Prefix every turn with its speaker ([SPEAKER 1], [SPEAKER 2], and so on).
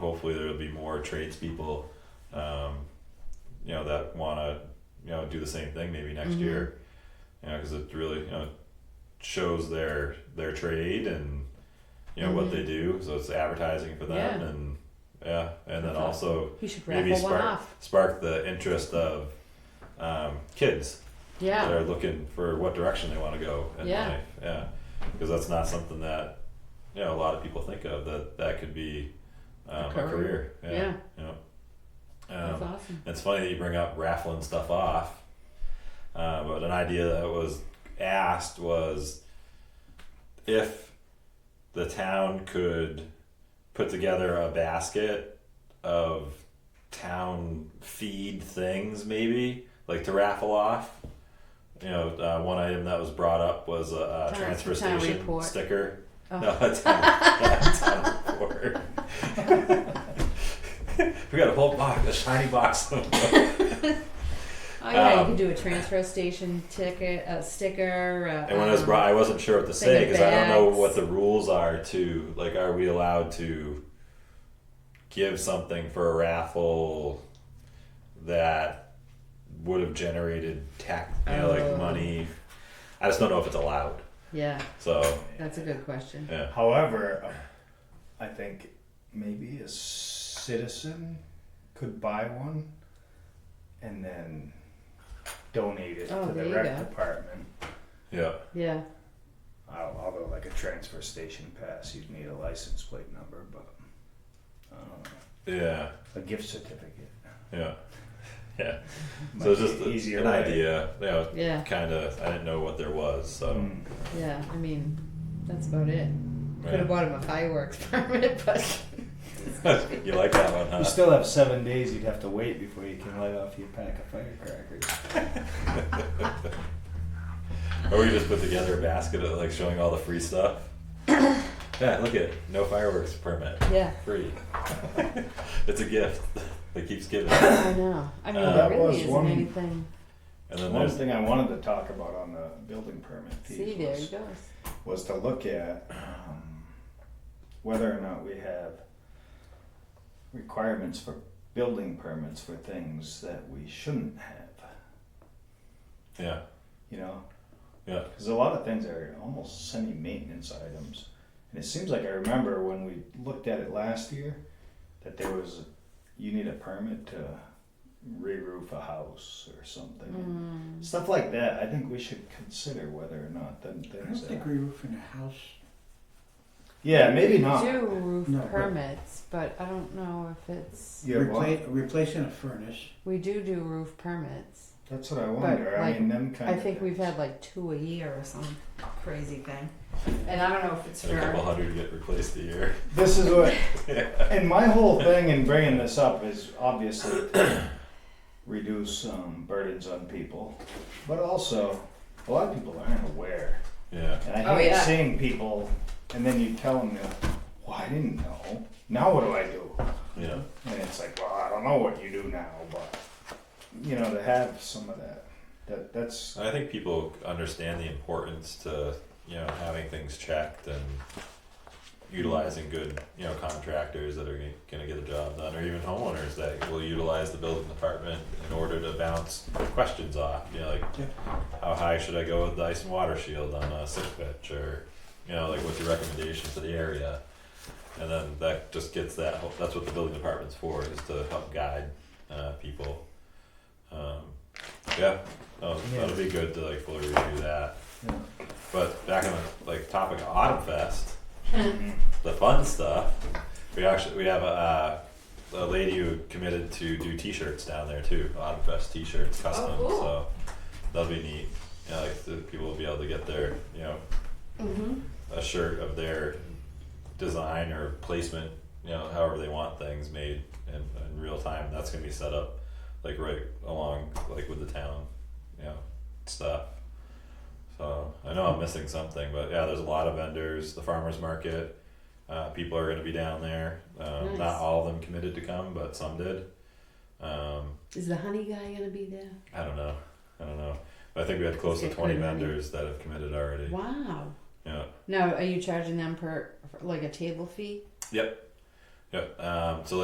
[SPEAKER 1] hopefully there'll be more tradespeople, um, you know, that wanna, you know, do the same thing maybe next
[SPEAKER 2] Mhm.
[SPEAKER 1] year. You know, cause it really, you know, shows their, their trade and, you know, what
[SPEAKER 2] Mhm.
[SPEAKER 1] they do, so it's advertising for them
[SPEAKER 2] Yeah.
[SPEAKER 1] and, yeah, and then
[SPEAKER 2] That's awesome.
[SPEAKER 1] also
[SPEAKER 2] We should
[SPEAKER 1] Maybe
[SPEAKER 2] raffle one
[SPEAKER 1] spark-
[SPEAKER 2] off.
[SPEAKER 1] spark the interest of, um, kids that
[SPEAKER 2] Yeah.
[SPEAKER 1] are looking for what direction they want to go in
[SPEAKER 2] Yeah.
[SPEAKER 1] life. Yeah, because that's not something that you know a lot of people think of that that could be um, a
[SPEAKER 2] A
[SPEAKER 1] career.
[SPEAKER 2] career. Yeah.
[SPEAKER 1] You know.
[SPEAKER 2] That's
[SPEAKER 1] Um,
[SPEAKER 2] awesome.
[SPEAKER 1] it's funny that you bring up raffling stuff off, uh, but an idea that was asked was if the town could put together a basket of town feed things, maybe like to raffle off. You know, uh, one item that was brought up was a, uh
[SPEAKER 2] Town-
[SPEAKER 1] transfer
[SPEAKER 2] town
[SPEAKER 1] station
[SPEAKER 2] report.
[SPEAKER 1] sticker.
[SPEAKER 2] Oh.
[SPEAKER 1] No, a town, a town report. we got a whole box, a shiny box. of them.
[SPEAKER 2] Oh yeah,
[SPEAKER 1] um,
[SPEAKER 2] you could do a transfer station ticket, a sticker. A,
[SPEAKER 1] And when I was
[SPEAKER 2] um,
[SPEAKER 1] brought, I wasn't sure what to
[SPEAKER 2] Send
[SPEAKER 1] say
[SPEAKER 2] it
[SPEAKER 1] because I don't know
[SPEAKER 2] back.
[SPEAKER 1] what the rules are to like. Are we allowed to give something for a raffle that would have generated tax, you know,
[SPEAKER 2] Oh.
[SPEAKER 1] like money? I just don't know if it's allowed.
[SPEAKER 2] Yeah,
[SPEAKER 1] So
[SPEAKER 2] that's a good question.
[SPEAKER 1] yeah,
[SPEAKER 3] However, I think maybe a citizen could buy one and then donate it
[SPEAKER 2] Oh,
[SPEAKER 3] to
[SPEAKER 2] there
[SPEAKER 3] the
[SPEAKER 2] you
[SPEAKER 3] rec
[SPEAKER 2] go.
[SPEAKER 3] department.
[SPEAKER 1] yeah,
[SPEAKER 2] Yeah.
[SPEAKER 3] Al- Although, like a transfer station pass, you'd need a license plate number, but I don't know.
[SPEAKER 1] yeah,
[SPEAKER 3] a gift certificate.
[SPEAKER 1] yeah, yeah.
[SPEAKER 3] might
[SPEAKER 1] So it's
[SPEAKER 3] be
[SPEAKER 1] just
[SPEAKER 3] an easier
[SPEAKER 1] an
[SPEAKER 3] way.
[SPEAKER 1] idea. Yeah,
[SPEAKER 2] Yeah.
[SPEAKER 1] kind of. I didn't know what there was, so.
[SPEAKER 3] Mm.
[SPEAKER 2] Yeah. I mean, that's about it. Could
[SPEAKER 1] yeah.
[SPEAKER 2] have bought him a fireworks permit, but
[SPEAKER 1] you like that one, huh?
[SPEAKER 3] You still have seven days you'd have to wait before you can light off your pack of firecrackers.
[SPEAKER 1] Or we just put together a basket of like showing all the free stuff. yeah, look at no fireworks permit,
[SPEAKER 2] yeah,
[SPEAKER 1] free. it's a gift that keeps giving.
[SPEAKER 2] I know. I mean,
[SPEAKER 1] Uh,
[SPEAKER 2] there
[SPEAKER 1] that
[SPEAKER 3] was
[SPEAKER 2] really isn't
[SPEAKER 3] one-
[SPEAKER 2] anything.
[SPEAKER 1] And then
[SPEAKER 3] One
[SPEAKER 1] there's
[SPEAKER 3] thing I wanted to talk about on the building permit
[SPEAKER 2] See,
[SPEAKER 3] fees
[SPEAKER 2] there
[SPEAKER 3] was
[SPEAKER 2] he goes.
[SPEAKER 3] was to look at um, whether or not we have requirements for building permits for things that we shouldn't have,
[SPEAKER 1] yeah,
[SPEAKER 3] you know?
[SPEAKER 1] Yeah.
[SPEAKER 3] Because a lot of things are almost semi-maintenance items. And it seems like I remember when we looked at it last year, that there was, you need a permit to re-roof a house or something.
[SPEAKER 2] Mm.
[SPEAKER 3] Stuff like that, I think we should consider whether or not them
[SPEAKER 4] I don't
[SPEAKER 3] things
[SPEAKER 4] think
[SPEAKER 3] are.
[SPEAKER 4] re-roofing a house.
[SPEAKER 3] Yeah, maybe
[SPEAKER 2] We
[SPEAKER 3] not.
[SPEAKER 2] Do roof
[SPEAKER 4] No, but-
[SPEAKER 2] permits, but I don't know if it's.
[SPEAKER 3] Yeah, well-
[SPEAKER 4] Repla- Replacing a furnace.
[SPEAKER 2] We do do roof permits.
[SPEAKER 3] That's what I wonder. I
[SPEAKER 2] like,
[SPEAKER 3] mean, them kind
[SPEAKER 2] I
[SPEAKER 3] of
[SPEAKER 2] think we've
[SPEAKER 3] things.
[SPEAKER 2] had like two a year or some crazy thing, and I don't know if it's
[SPEAKER 1] and a couple
[SPEAKER 2] for.
[SPEAKER 1] hundred get replaced a year.
[SPEAKER 3] This is what, and my whole thing in bringing this up is obviously to reduce um, burdens on people, but also a lot of people aren't aware,
[SPEAKER 1] Yeah,
[SPEAKER 3] and I hate
[SPEAKER 2] Oh, yeah.
[SPEAKER 3] seeing people, and then you tell them, "Well, I didn't know. Now what do I do?"
[SPEAKER 1] yeah,
[SPEAKER 3] And it's like, "Well, I don't know what you do now," but you know, to have some of that, that that's
[SPEAKER 1] and I think people understand the importance to you know having things checked and utilizing good you know contractors that are g- gonna get the job done, or even homeowners that will utilize the building department in order to bounce questions off. You know, like
[SPEAKER 4] Yeah.
[SPEAKER 1] how high should I go with the ice and water shield on a six pitch, or you know, like what's your recommendation for the area? And then that just gets that. whole- That's what the building department's for, is to help guide uh, people. Um, yeah, no,
[SPEAKER 3] Yeah.
[SPEAKER 1] that'll be good to like fully review that.
[SPEAKER 3] you know,
[SPEAKER 1] But back on the like topic of Autumn Fest,
[SPEAKER 2] Hmm.
[SPEAKER 3] mhm.
[SPEAKER 1] the fun stuff. We actually we have a, uh, a lady who committed to do T-shirts down there too, Autumn Fest T-shirts, custom.
[SPEAKER 2] cool.
[SPEAKER 1] So that'll be neat. You know, like the people will be able to get their you know
[SPEAKER 2] Mm-hmm.
[SPEAKER 1] a shirt of their design or placement, you know, however they want things made in, in real time. That's gonna be set up like right along like with the town, you know, stuff. So I know I'm missing something, but yeah, there's a lot of vendors. The farmers market, uh, people are gonna be down there. Um, Not
[SPEAKER 2] Nice.
[SPEAKER 1] all of them committed to come, but some did. Um,
[SPEAKER 2] Is the honey guy gonna be there?
[SPEAKER 1] I don't know. I don't know. But I think we had close to
[SPEAKER 2] Get
[SPEAKER 1] twenty
[SPEAKER 2] pretty many.
[SPEAKER 1] vendors that have committed already.
[SPEAKER 2] Wow.
[SPEAKER 1] Yeah.
[SPEAKER 2] Now, are you charging them per for like a table fee?
[SPEAKER 1] Yep. Um, so